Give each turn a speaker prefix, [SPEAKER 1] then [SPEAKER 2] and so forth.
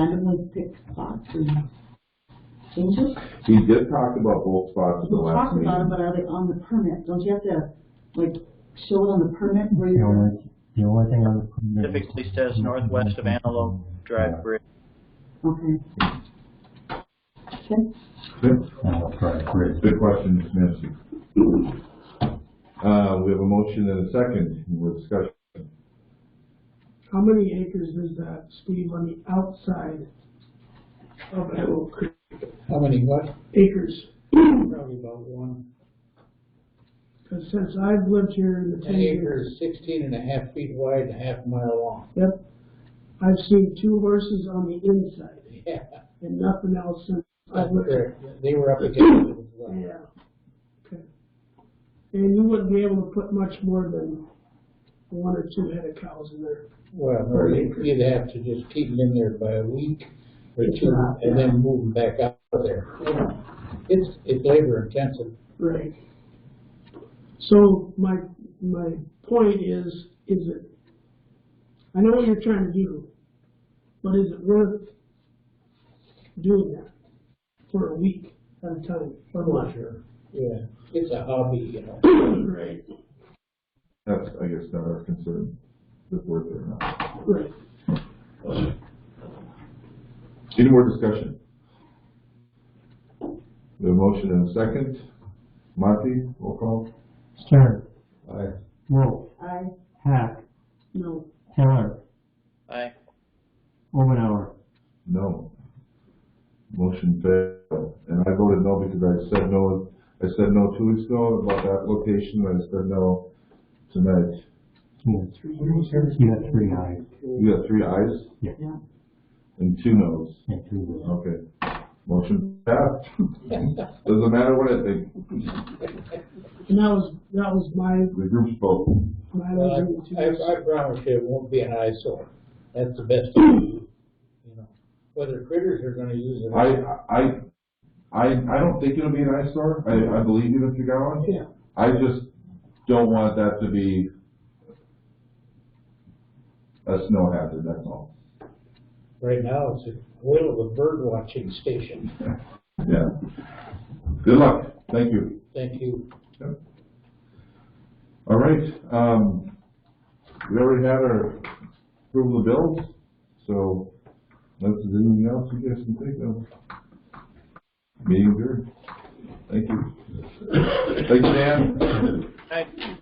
[SPEAKER 1] randomly pick spots and change it?
[SPEAKER 2] We did talk about both spots at the
[SPEAKER 1] We
[SPEAKER 2] last
[SPEAKER 1] talked about it,
[SPEAKER 2] meeting.
[SPEAKER 1] but are they on the permit? Don't you have to, like, show it on the permit where
[SPEAKER 3] The
[SPEAKER 1] you're,
[SPEAKER 3] only, the only thing on the.
[SPEAKER 4] Specifically says northwest of Antelope Drive Bridge.
[SPEAKER 1] okay. Okay,
[SPEAKER 2] Good-
[SPEAKER 3] Uh, Right, great.
[SPEAKER 2] Good question, Nancy. Uh, we have a motion and a second, we're discussing.
[SPEAKER 5] How many acres is that, Steve, on the outside of Antelope Creek?
[SPEAKER 6] How many what?
[SPEAKER 5] Acres?
[SPEAKER 6] Probably about one.
[SPEAKER 5] Because since I've lived here in the ten
[SPEAKER 6] An acre
[SPEAKER 5] years,
[SPEAKER 6] is sixteen and a half feet wide and a half mile long.
[SPEAKER 5] yep, I've seen two horses on the inside
[SPEAKER 6] Yeah,
[SPEAKER 5] and nothing else since
[SPEAKER 6] up
[SPEAKER 5] I've lived here.
[SPEAKER 6] there, they were up against it. with, uh,
[SPEAKER 5] Yeah. Okay. And you wouldn't be able to put much more than one or two head of cows in there.
[SPEAKER 6] Well, no, you'd you'd have to just keep them in there by a week or
[SPEAKER 5] It's
[SPEAKER 6] two
[SPEAKER 5] not,
[SPEAKER 6] and then move them back out of there. It's, it's labor intensive.
[SPEAKER 5] Right. So my, my point is, is it, I know what you're trying to do, but is it worth doing that for a week at a time? I'm not sure.
[SPEAKER 6] Yeah, it's a hobby, you know.
[SPEAKER 5] Right,
[SPEAKER 2] That's, I guess, not our concern, if worth it or not.
[SPEAKER 5] right.
[SPEAKER 2] Any more discussion? We have a motion and a second. Monty, roll call.
[SPEAKER 3] Stern,
[SPEAKER 2] Aye.
[SPEAKER 3] Wolf,
[SPEAKER 1] I,
[SPEAKER 3] Hack,
[SPEAKER 1] no,
[SPEAKER 3] Taylor,
[SPEAKER 4] Aye.
[SPEAKER 3] Omenauer.
[SPEAKER 2] No. Motion failed. And I voted no because I said no, I said no two weeks ago about that location, and I said no tonight.
[SPEAKER 3] You got three, you got three eyes,
[SPEAKER 2] You got three ayes
[SPEAKER 1] yeah.
[SPEAKER 2] and two noes.
[SPEAKER 3] and three wills.
[SPEAKER 2] Okay. Motion passed. Doesn't matter what I think,
[SPEAKER 5] And that was, that was my,
[SPEAKER 2] the group's vote.
[SPEAKER 5] my
[SPEAKER 6] Well,
[SPEAKER 5] reason
[SPEAKER 6] I, I
[SPEAKER 5] to,
[SPEAKER 6] I promise you, it won't be an eyesore. That's the best you can do, you know. Whether critters are gonna use it. or
[SPEAKER 2] I,
[SPEAKER 6] not.
[SPEAKER 2] I, I, I don't think it'll be an eyesore. I, I believe you, Mr. Gowan.
[SPEAKER 6] Yeah.
[SPEAKER 2] I just don't want that to be a snow hazard, that's all.
[SPEAKER 6] Right now, it's a whale of a bird watching station.
[SPEAKER 2] Yeah. Good luck. Thank you.
[SPEAKER 6] Thank you.
[SPEAKER 2] All right, um, we already had our approval of bills, so unless there's anything else you guys can think of. Meeting adjourned. Thank you. Thank you, Dan.
[SPEAKER 4] Aye.